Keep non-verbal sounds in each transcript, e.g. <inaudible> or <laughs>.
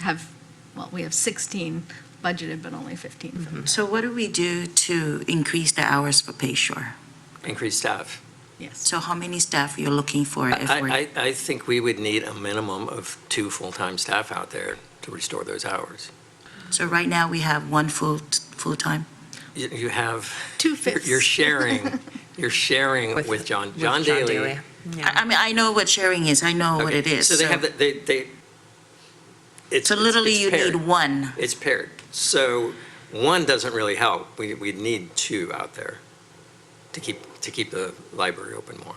have, well, we have 16 budgeted, but only 15 for the, So what do we do to increase the hours for Bayshore? increased staff. Mm-hmm. yes. So how many staff you're looking for if we're, I, I, I think we would need a minimum of two full-time staff out there to restore those hours. so right now we have one full, full-time? You, you have, Two you're- fifths. <laughs> you're sharing, you're sharing with John, John Daly. I, I mean, I know what sharing is, I know Oh, what Okay, it is. So they have, the- they, they, it's. So it's- literally it's you paired. need one. It's paired. So one doesn't really help. We, we need two out there to keep, to keep the library open more.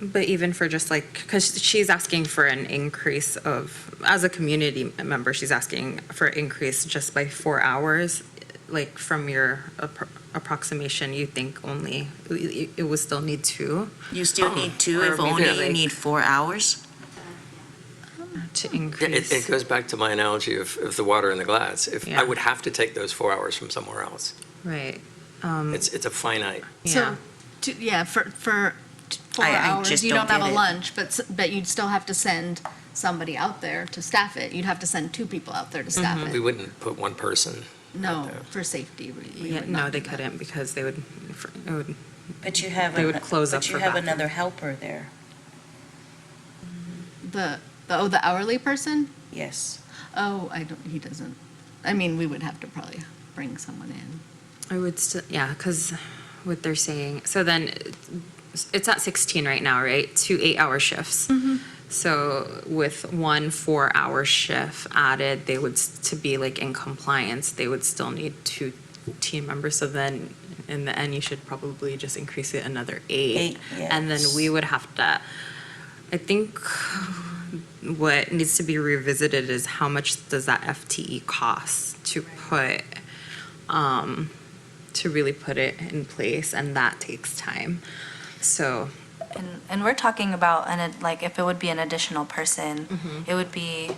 But even for just like, because she's asking for an increase of, as a community member, she's asking for increase just by four hours. Like from your appro- approximation, you think only, it it would still need two You still Oh, need two Or if only maybe you like- need four hours? to Yeah, It, it increase. goes back to my analogy of, of the water in the glass. If, Yeah. I would have to take those four hours from somewhere else. Right, It's, it's a finite. yeah. So, two- yeah, for, for t- four I- I hours, just you don't don't have get a it. lunch, but, s- but you'd still have to send somebody out there to staff it. You'd have to send two people out there to staff Mm-hmm. We it. wouldn't put one person. No, there. for safety, we- we Yeah, would no, not they do that. couldn't because they would, it would, But you have, They would an- close but up you for have bathroom. another helper there, The, the, oh, the hourly person? yes. Oh, I don't, he doesn't. I mean, we would have to probably bring someone in. I would still, yeah, because what they're saying, so then it's- it's at 16 right now, right? Two eight-hour shifts. Mm-hmm. So with one four-hour shift added, they would, s- to be like in compliance, they would still need two team members. So then in the end, you should probably just increase it another eight. Eight, And then yes. we would have to, I think what needs to be revisited is how much does that FTE cost to put um, to really put it in place, and that takes time. So, And, and we're talking about, and it, like, if it would be an additional person, it would be,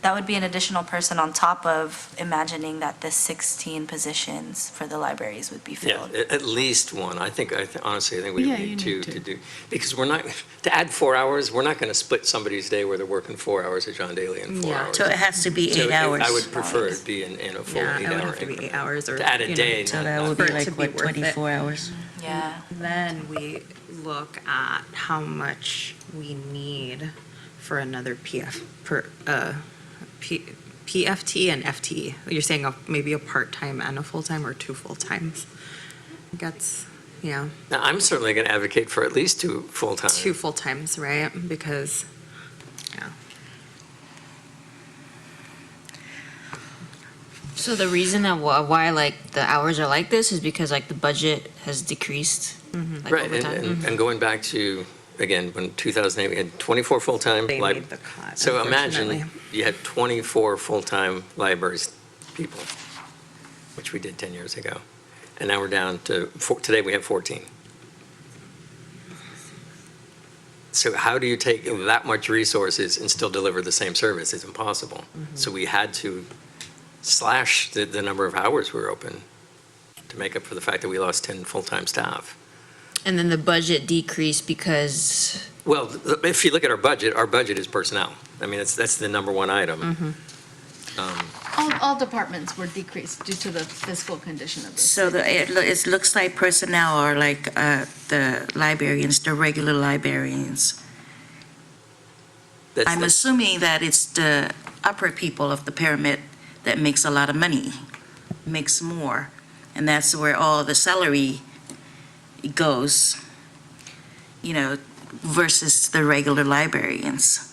that would be an additional person on top of imagining that the 16 positions for the libraries would be Yeah, filled. at, at least one. I think, I th- honestly, I think we Yeah, would you need two need two. to do. Because we're not, to add four hours, we're not going to split somebody's day where they're working four hours at John Daly and four Yeah. hours. So it has to be So eight it- hours. I would prefer it be in, in a full yeah, it would eight-hour have to be eight increment. hours or To add a you know, day, So not- that not would for be it to like, be what, worth it. 24 hours? Yeah. Then we look at how much we need for another PF per uh, P, PFT and FTE. You're saying a, maybe a part time and a full time, or two full times. That's yeah, Now, I'm certainly going to advocate for at least two full-time. two full times, right? Because yeah. So the reason that wh- why like the hours are like this is because like the budget has decreased like Right, over and- time. and, and going back to, again, when 2008, we had 24 full-time. They lib- made the cut, So imagine unfortunately. you had 24 full-time libraries people, which we did 10 years ago. And now we're down to, four- today we have 14. So how do you take that much resources and still deliver the same service? It's impossible. So we had to slash the, the number of hours we were open to make up for the fact that we lost 10 full-time staff. And then the budget decreased because Well, th- if you look at our budget, our budget is personnel. I mean, that's, that's the number one item. Um, All, all departments were decreased due to the fiscal condition of this. So the, it, lo- it looks like personnel are like, uh, the librarians, the regular librarians. that's- I'm that's- assuming that it's the upper people of the pyramid that makes a lot of money, makes more. And that's where all the salary goes, you know, versus the regular librarians.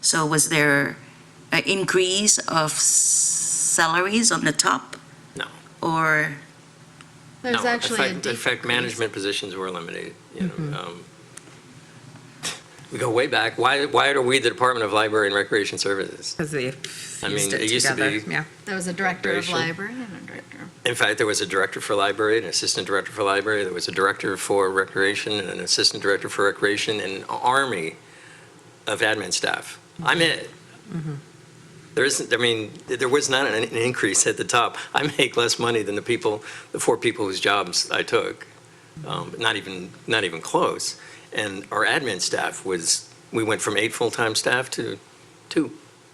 So was there an increase of s- salaries on the top? No. Or, There's no, in actually a fact- In fact, decrease. management positions were eliminated, you know. um, We go way back. Why, why are we the Department of Library and Recreation Services? Because they I mean, fused it it used to together, be- yeah. There was a director of Racial. library and a director of In fact, there was a director for library, an assistant director for library, there was a director for recreation, and an assistant director for recreation, and an army of admin staff. I'm it. Mm-hmm. There isn't, I mean, there was not an an increase at the top. <laughs> I make less money than the people, the four people whose jobs I took, Um, not even, not even close. And our admin staff was, we went from eight full-time staff to two.